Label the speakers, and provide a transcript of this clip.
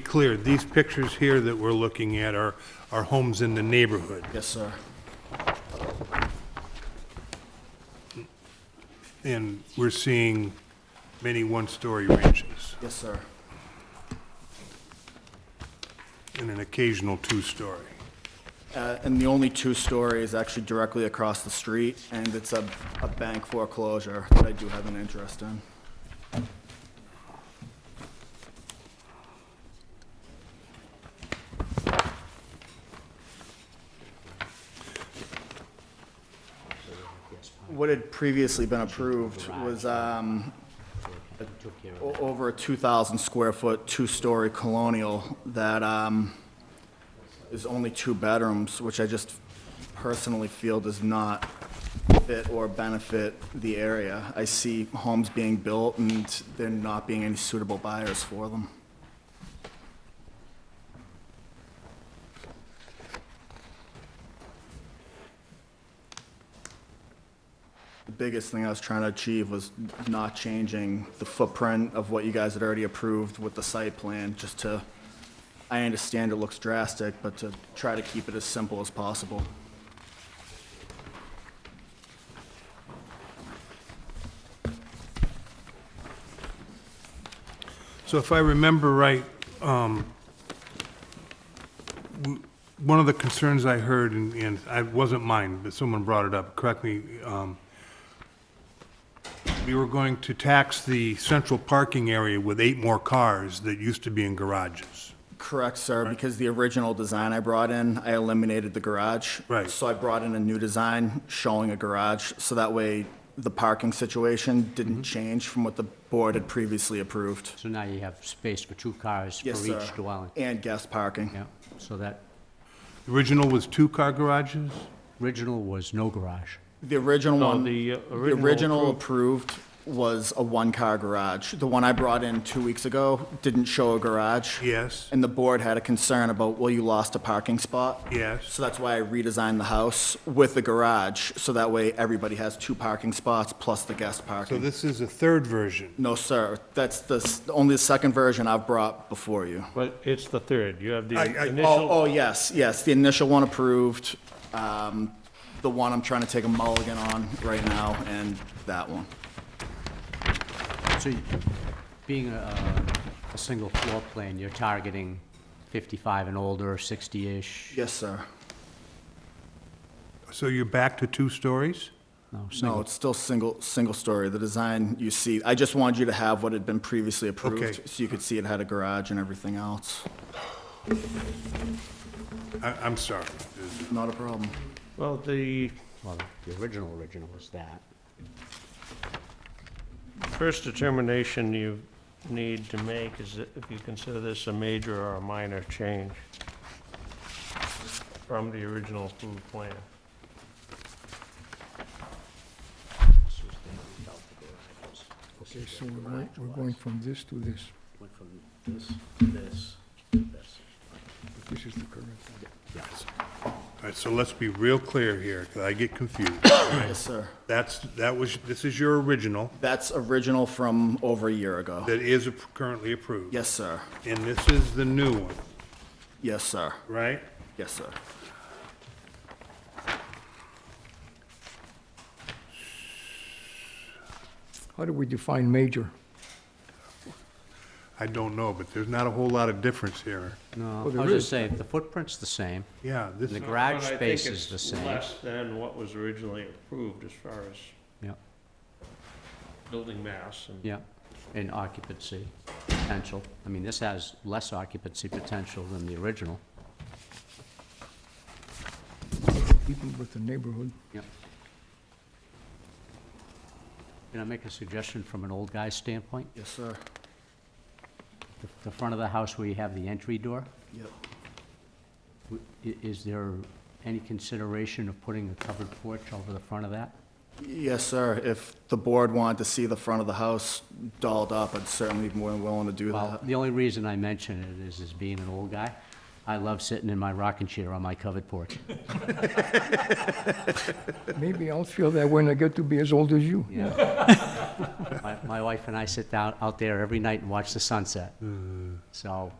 Speaker 1: clear, these pictures here that we're looking at are, are homes in the neighborhood.
Speaker 2: Yes, sir.
Speaker 1: And we're seeing many one-story ranches
Speaker 2: Yes, sir.
Speaker 1: and an occasional two-story.
Speaker 2: Uh, And the only two-story is actually directly across the street, and it's a, a bank foreclosure that I do have an interest in. What had previously been approved was um, o- over a 2,000-square-foot, two-story colonial that um, is only two bedrooms, which I just personally feel does not fit or benefit the area. I see homes being built and there not being any suitable buyers for them. The biggest thing I was trying to achieve was not changing the footprint of what you guys had already approved with the site plan, just to, I understand it looks drastic, but to try to keep it as simple as possible.
Speaker 1: So if I remember right, um, w- one of the concerns I heard, and- and I- it wasn't mine, but someone brought it up, correct me, um, we were going to tax the central parking area with eight more cars that used to be in garages.
Speaker 2: Correct, sir, because the original design I brought in, I eliminated the garage.
Speaker 1: Right.
Speaker 2: So I brought in a new design showing a garage, so that way the parking situation
Speaker 3: Mm-hmm.
Speaker 2: didn't change from what the board had previously approved.
Speaker 3: So now you have space for two cars for
Speaker 2: Yes, sir.
Speaker 3: each dwelling?
Speaker 2: And guest parking.
Speaker 3: Yeah, so that
Speaker 1: The Original was two-car garages?
Speaker 3: original was no garage.
Speaker 2: The original
Speaker 4: No,
Speaker 2: one.
Speaker 4: the, uh,
Speaker 2: the
Speaker 4: original
Speaker 2: original approved was a one-car garage. The one I brought in two weeks ago didn't show a garage.
Speaker 1: Yes,
Speaker 2: And the board had a concern about, well, you lost a parking spot.
Speaker 1: yes.
Speaker 2: So that's why I redesigned the house with the garage, so that way everybody has two parking spots plus the guest
Speaker 1: So
Speaker 2: parking.
Speaker 1: this is a third version.
Speaker 2: No, sir, that's the, s- only the second version I've brought before you.
Speaker 4: But it's the third. You have the
Speaker 1: I- I-
Speaker 2: Oh,
Speaker 4: initial,
Speaker 2: oh, yes, yes, the initial one approved, um, the one I'm trying to take a mulligan on right now, and that one.
Speaker 3: So you- being a, a- a single floor plan, you're targeting 55 and older, 60-ish?
Speaker 2: Yes, sir.
Speaker 1: So you're back to two stories?
Speaker 3: No,
Speaker 2: No,
Speaker 3: single.
Speaker 2: it's still single, single story, the design you see, I just wanted you to have what had been previously
Speaker 1: Okay.
Speaker 2: approved, so you could see it had a garage and everything else.
Speaker 1: I, I'm sorry.
Speaker 2: Not a problem.
Speaker 4: well, the
Speaker 3: Well, the original, original was that.
Speaker 4: first determination you need to make is that if you consider this a major or a minor change from the original approved plan.
Speaker 3: This was the one without the garages. This
Speaker 5: Okay,
Speaker 3: is
Speaker 5: so
Speaker 3: where
Speaker 5: we're
Speaker 3: the
Speaker 5: going-
Speaker 3: garage
Speaker 5: we're
Speaker 3: was.
Speaker 5: going from this to this.
Speaker 3: Went from this to this to this.
Speaker 5: This is the current.
Speaker 3: Yes.
Speaker 1: All right, so let's be real clear here, because I get confused.
Speaker 2: Yes, sir.
Speaker 1: That's, that was, this is your original
Speaker 2: That's original from over a year ago.
Speaker 1: that is ap- currently approved.
Speaker 2: Yes, sir.
Speaker 1: And this is the new one,
Speaker 2: Yes, sir.
Speaker 1: right?
Speaker 2: Yes, sir.
Speaker 5: How do we define major?
Speaker 1: I don't know, but there's not a whole lot of difference here.
Speaker 3: No, I
Speaker 5: Oh, there
Speaker 3: was
Speaker 5: is.
Speaker 3: just saying, the footprint's the same,
Speaker 1: Yeah, this,
Speaker 3: and the
Speaker 1: I
Speaker 3: garage
Speaker 4: But I think
Speaker 3: space is
Speaker 4: it's
Speaker 3: the same.
Speaker 4: Less than what was originally approved as far as
Speaker 3: Yeah,
Speaker 4: building mass and.
Speaker 3: yeah, and occupancy potential. I mean, this has less occupancy potential than the original.
Speaker 5: Keeping with the neighborhood.
Speaker 3: Yep. Can I make a suggestion from an old guy's standpoint?
Speaker 2: Yes, sir.
Speaker 3: The- The front of the house where you have the entry door,
Speaker 2: Yep.
Speaker 3: w- i- is there any consideration of putting a covered porch over the front of that?
Speaker 2: Yes, sir. If the board wanted to see the front of the house dolled up, I'd certainly be more than willing to do
Speaker 3: Well,
Speaker 2: that.
Speaker 3: the only reason I mention it is, is being an old guy, I love sitting in my rocking chair on my covered porch.
Speaker 5: Maybe I'll feel that when I get to be as old as you.
Speaker 3: My, my wife and I sit down out there every night and watch the sunset. So